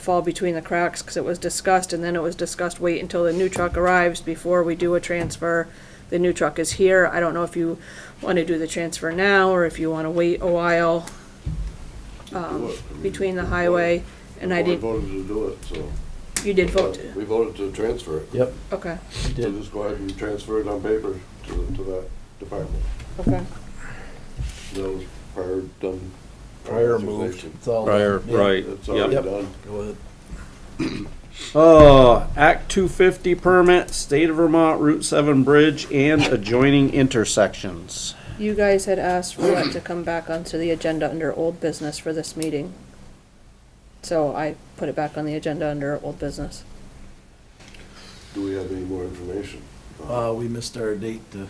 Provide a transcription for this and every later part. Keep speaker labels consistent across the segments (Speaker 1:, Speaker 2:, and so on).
Speaker 1: fall between the cracks because it was discussed and then it was discussed, wait until the new truck arrives before we do a transfer. The new truck is here. I don't know if you want to do the transfer now or if you want to wait a while um, between the highway. And I
Speaker 2: Well,
Speaker 1: didn't,
Speaker 2: We voted to do it, so.
Speaker 1: you did vote, to-
Speaker 2: We voted to transfer it.
Speaker 3: Yep,
Speaker 1: okay,
Speaker 3: it
Speaker 2: So
Speaker 3: did.
Speaker 2: just go ahead and transfer it on paper to, to that department.
Speaker 1: okay.
Speaker 2: That was prior done.
Speaker 3: Prior moved. It's all done.
Speaker 4: Prior,
Speaker 3: Yeah.
Speaker 4: right,
Speaker 2: It's already
Speaker 4: yep.
Speaker 3: Yep.
Speaker 2: done.
Speaker 3: Go ahead.
Speaker 4: Uh, Act two fifty permit, state of Vermont Route seven bridge and adjoining intersections.
Speaker 1: You guys had asked for that to come back onto the agenda under old business for this meeting. So I put it back on the agenda under old business.
Speaker 2: Do we have any more information?
Speaker 3: Uh, we missed our date to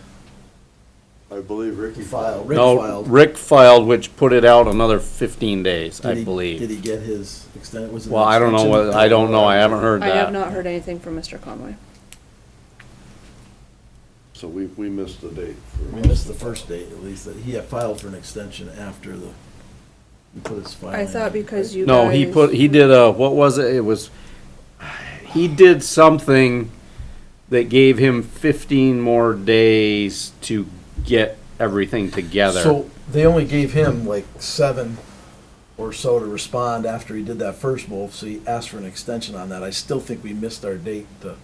Speaker 2: I believe Ricky.
Speaker 3: file. Rick
Speaker 4: No,
Speaker 3: filed.
Speaker 4: Rick filed, which put it out another fifteen days,
Speaker 3: Did
Speaker 4: I
Speaker 3: he- Did
Speaker 4: believe.
Speaker 3: he get his extended, was it? an
Speaker 4: Well, I don't know
Speaker 3: extension?
Speaker 4: what, I don't know, I haven't heard
Speaker 1: I have
Speaker 4: that.
Speaker 1: not heard anything from Mr. Conway.
Speaker 2: So we, we missed the date. for-
Speaker 3: We missed the first date, at least, that he had filed for an extension after the, he put his filing.
Speaker 1: I thought
Speaker 3: in.
Speaker 1: because you
Speaker 4: No, he
Speaker 1: guys-
Speaker 4: put, he did a, what was it? It was, he did something that gave him fifteen more days to get everything together.
Speaker 3: So they only gave him like seven or so to respond after he did that first move, so he asked for an extension on that. I still think we missed our date to,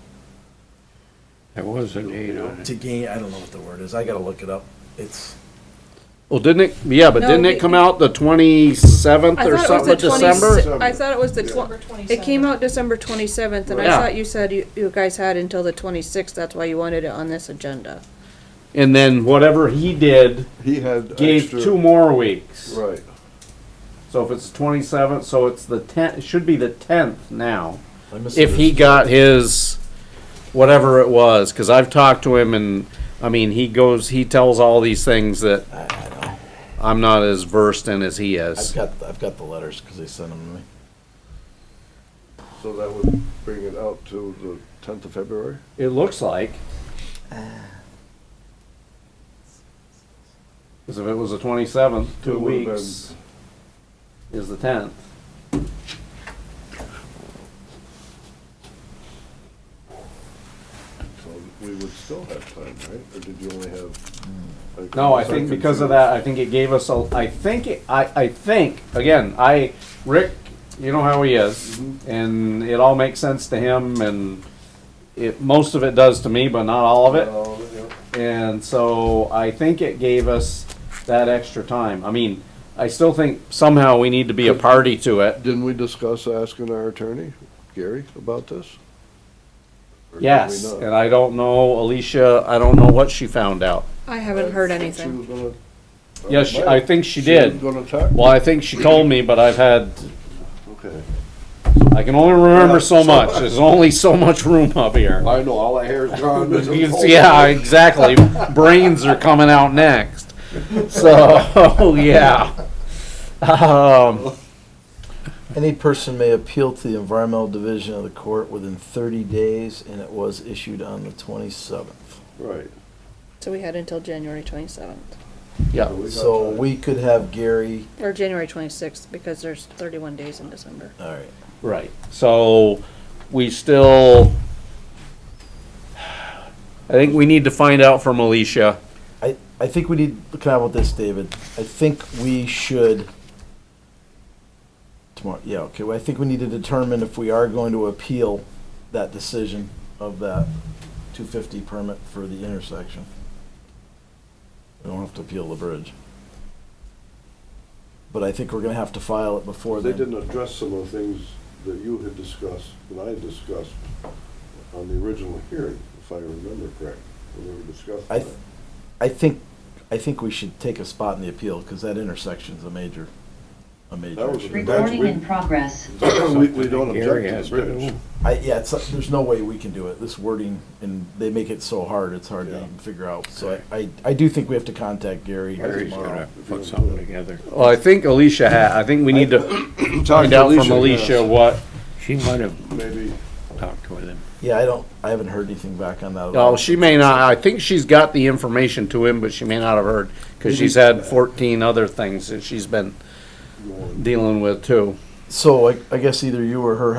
Speaker 4: There was a date
Speaker 2: on
Speaker 3: to gain, I don't know what the word is, I gotta look it up. It's,
Speaker 4: Well, didn't it, yeah, but
Speaker 1: No,
Speaker 4: didn't
Speaker 1: we-
Speaker 4: it come out the twenty-seventh
Speaker 1: I
Speaker 4: or
Speaker 1: thought
Speaker 4: something of
Speaker 1: it was the
Speaker 4: December?
Speaker 1: 26th. I thought it was the
Speaker 5: December
Speaker 1: twen- it came
Speaker 5: 27th.
Speaker 1: out December twenty-seventh, and I
Speaker 4: Yeah.
Speaker 1: thought you said you, you guys had until the twenty-sixth, that's why you wanted it on this agenda.
Speaker 4: And then whatever he did
Speaker 2: He had
Speaker 4: gave
Speaker 2: extra-
Speaker 4: two more weeks.
Speaker 2: Right.
Speaker 4: So if it's twenty-seventh, so it's the tenth, it should be the tenth now.
Speaker 3: I missed.
Speaker 4: If he
Speaker 3: his-
Speaker 4: got his, whatever it was, cause I've talked to him and, I mean, he goes, he tells all these things that
Speaker 3: I, I know,
Speaker 4: I'm not as versed in as he
Speaker 3: I've
Speaker 4: is.
Speaker 3: got, I've got the letters, cause they sent them to me.
Speaker 2: So that would bring it out to the tenth of February?
Speaker 4: It looks like. Cause if it was the twenty-seventh, two
Speaker 2: It would've been-
Speaker 4: weeks is the tenth.
Speaker 2: So we would still have time, right? Or did you only have? like,
Speaker 4: No, I
Speaker 2: was
Speaker 4: think because of
Speaker 2: confused?
Speaker 4: that, I think it gave us a, I think, it- I, I think, again, I, Rick, you know how he is, and it all makes sense to him, and it, most of it does to me, but not all of it,
Speaker 2: All of it,
Speaker 4: and so I think it gave us that extra time. I mean, I still think somehow we need to be a party to
Speaker 2: yeah.
Speaker 4: it.
Speaker 2: Didn't we discuss asking our attorney, Gary, about this? Or did we
Speaker 4: Yes,
Speaker 2: not?
Speaker 4: and I don't know, Alicia, I don't know what she found out.
Speaker 1: I haven't heard
Speaker 2: She
Speaker 1: anything.
Speaker 2: was gonna-
Speaker 4: Yes, she- I think
Speaker 2: She
Speaker 4: she
Speaker 2: was
Speaker 4: did.
Speaker 2: gonna talk?
Speaker 4: Well, I think she told me, but I've had
Speaker 2: Okay.
Speaker 4: I can only remember so
Speaker 2: Yeah, so-
Speaker 4: much. There's only so much room up here.
Speaker 2: I know, all that hair's gone.
Speaker 4: You can see- yeah, exactly. Brains are coming out next. So, yeah. Um,
Speaker 3: Any person may appeal to the environmental division of the court within thirty days, and it was issued on the twenty-seventh.
Speaker 2: Right.
Speaker 1: So we had until January twenty-seventh,
Speaker 4: yeah.
Speaker 2: we got
Speaker 3: So
Speaker 2: time.
Speaker 3: we could have Gary,
Speaker 1: or January twenty-sixth, because there's thirty-one days in December.
Speaker 3: all right,
Speaker 4: Right. So we still. I think we need to find out from Alicia.
Speaker 3: I, I think we need, can I about this, David? I think we should, tomorrow, yeah, okay, well, I think we need to determine if we are going to appeal that decision of that two fifty permit for the intersection. We don't have to appeal the bridge. But I think we're gonna have to file it before
Speaker 2: They
Speaker 3: then.
Speaker 2: didn't address some of the things that you had discussed, that I had discussed on the original hearing, if I remember correct, when we were discussing
Speaker 3: I
Speaker 2: that.
Speaker 3: th- I think, I think we should take a spot in the appeal, because that intersection's a major, a major
Speaker 2: That was a
Speaker 3: issue.
Speaker 2: big- Recording
Speaker 5: Recording
Speaker 2: in
Speaker 5: in progress.
Speaker 2: We, we don't
Speaker 4: Gary
Speaker 2: object
Speaker 4: has
Speaker 2: to the bridge.
Speaker 3: I, yeah, it's, there's no way we can do it, this wording, and they make it so hard, it's hard to
Speaker 2: Yeah.
Speaker 3: even figure out. So I, I, I do think we have to contact Gary tomorrow.
Speaker 2: put something
Speaker 6: together.
Speaker 4: Well, I think Alicia had. I think we need to find out from Alicia what.
Speaker 6: She might have
Speaker 2: Maybe,
Speaker 6: talked with him.
Speaker 3: Yeah, I don't, I haven't heard anything back on that. at all.
Speaker 4: Oh, she may not. I think she's got the information to him, but she may not have heard because she's had 14 other things that she's been
Speaker 2: you know,
Speaker 4: dealing with too.
Speaker 3: So I, I guess either you or her